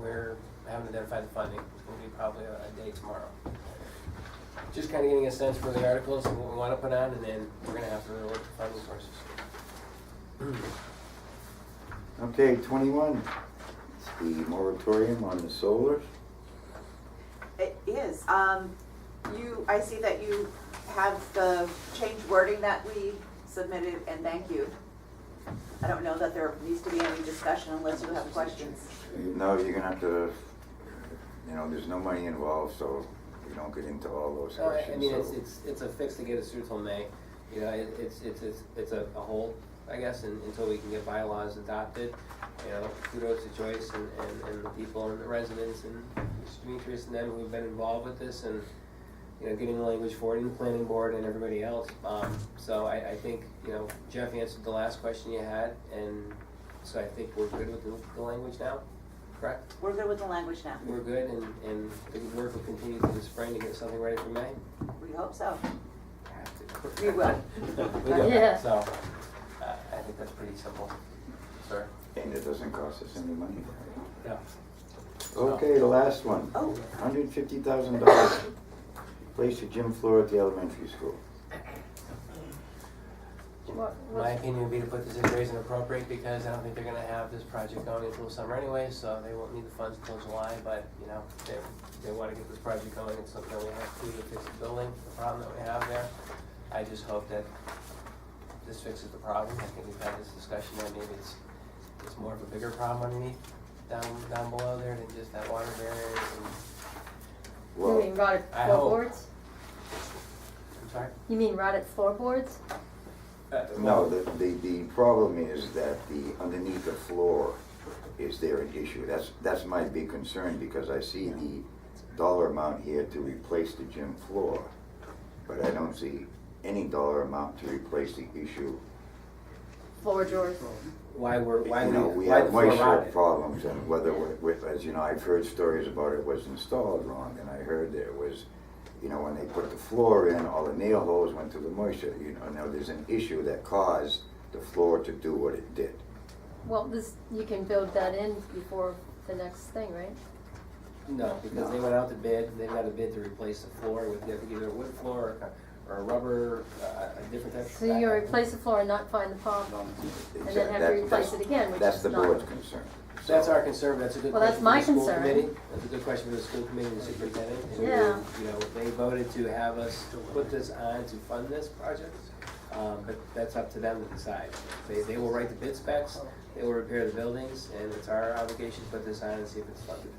we're, haven't identified the funding, it's gonna be probably a, a day tomorrow. Just kinda getting a sense for the articles and what we wanna put on, and then we're gonna have to really look at funding sources. Okay, twenty-one, it's the moratorium on the solar. It is, um, you, I see that you have the change wording that we submitted, and thank you. I don't know that there needs to be any discussion unless you have questions. You know, you're gonna have to, you know, there's no money involved, so you don't get into all those So, Uh, I- I mean, it's, questions, it's, it's a fix to get us through till May, you know, it, it's, it's, it's, it's a, a hold, I guess, and, until we can get bylaws adopted. You know, kudos to Joyce and, and, and the people and the residents and Mr. Demetrius and them who've been involved with this and, you know, getting the language for it in the planning board and everybody else. Um, so I, I think, you know, Jeff answered the last question you had and so I think we're good with the, the language now, correct? We're good with the language now, We're good and, and the work will continue through the spring to get something ready for May? we hope so. We We will. will. Yeah. So, uh, I think that's pretty simple, sir. so, and it doesn't cost us any money. Yeah. Okay, the last one. Oh. Hundred fifty thousand dollars, place the gym floor at the elementary school. What, My what's, opinion would be to put this in raise and appropriate because I don't think they're gonna have this project going until summer anyway, so they won't need the funds until July, but, you know, they, they wanna get this project going, it's something we have to do to fix the building, the problem that we have there. I just hope that this fixes the problem, I think we've had this discussion, that maybe it's, it's more of a bigger problem underneath, down, down below there than just that water barrier and, you Well, mean rotted I hope. floorboards? I'm sorry? You mean rotted floorboards? Uh, no, the, the, the problem is that the, underneath the floor, is there an issue? That's, that's my big concern, because I see the dollar amount here to replace the gym floor, but I don't see any dollar amount to replace the issue. Floor drawers? Why were, why You know, we, we why the have floor moisture rotted? problems, and whether, we- with, as you know, I've heard stories about it was installed wrong, and I heard there was, you know, when they put the floor in, all the nail holes went to the moisture, you know, now there's an issue that caused the floor to do what it did. Well, this, you can build that in before the next thing, right? No, because they went out to bid, they got a bid to replace the floor with either either a wood floor or, or a rubber, uh, a different type of. So you're gonna replace the floor and not find the problem, and then have to That- that's- replace it again, which That's is the not. board's concern. That's our concern, that's a good Well, that's question for the my school concern. committee. That's a good question for the school committee and the superintendent. And we, Yeah. You know, they voted to have us put this on to fund this project, um, but that's up to them to decide. They, they will write the bid specs, they will repair the buildings, and it's our obligation to put this on and see if it's funded.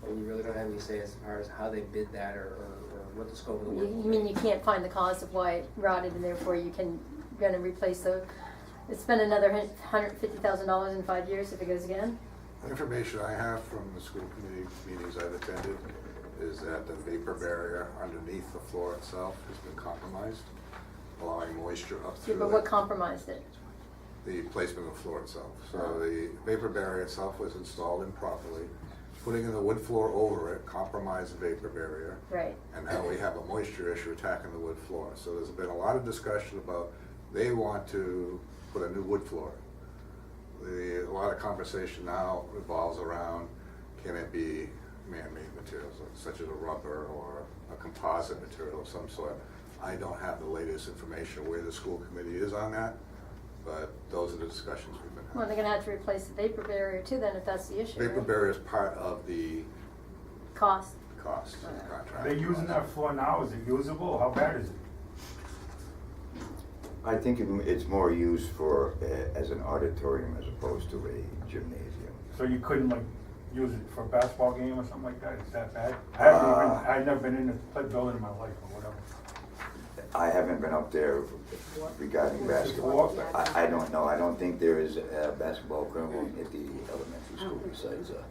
But we really don't have any say as far as how they bid that or, or or what the scope of the You, work you will mean be. you can't find the cause of why it rotted and therefore you can, gonna replace the, spend another hundred fifty thousand dollars in five years if it goes again? The Information I have from the school committee meetings I've attended is that the vapor barrier underneath the floor itself has been compromised, allowing moisture up Yeah, through But what the, compromised it? the placement of the floor itself. So the vapor barrier itself was installed improperly. Putting in the wood floor over it compromised the vapor barrier, Right, and now we have a moisture issue attacking the wood floor. So there's been a lot of discussion about, they want to put a new wood floor. The, a lot of conversation now revolves around, can it be man-made materials, such as a rubber or a composite material of some sort? I don't have the latest information where the school committee is on that, but those are the discussions we've been having. well, they're gonna have to replace the vapor barrier too then if that's the issue, Vapor right? barrier is part of the Cost, cost of the contract. They're using that floor now, is it usable, how bad is it? I think it- it's more used for, uh, as an auditorium as opposed to a gymnasium. So you couldn't like use it for a basketball game or something like that, is that bad? I haven't Ah. even, I've never been in a play building in my life or whatever. I haven't been up there regarding basketball. I, I don't know, I don't think there is a basketball equivalent at the elementary school besides a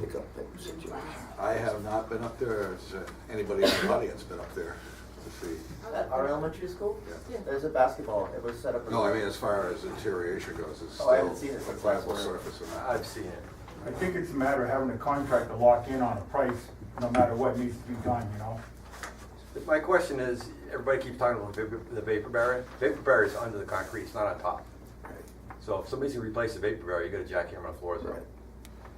pickup type of situation. I have not been up there, has uh, anybody in the audience been up there to see? At our elementary school? Yeah. There's a basketball, it was set up. No, I mean, as far as deterioration goes, it's Oh, I haven't still seen a it since flammable last winter. surface and that. I've seen it. I think it's a matter of having a contract to lock in on a price, no matter what needs to be done, you know? But My question is, everybody keeps talking about the vapor- the vapor barrier. Vapor barrier is under the concrete, it's not on top. So if somebody's gonna replace the vapor barrier, you got a jackhammer on the floor, so. Right.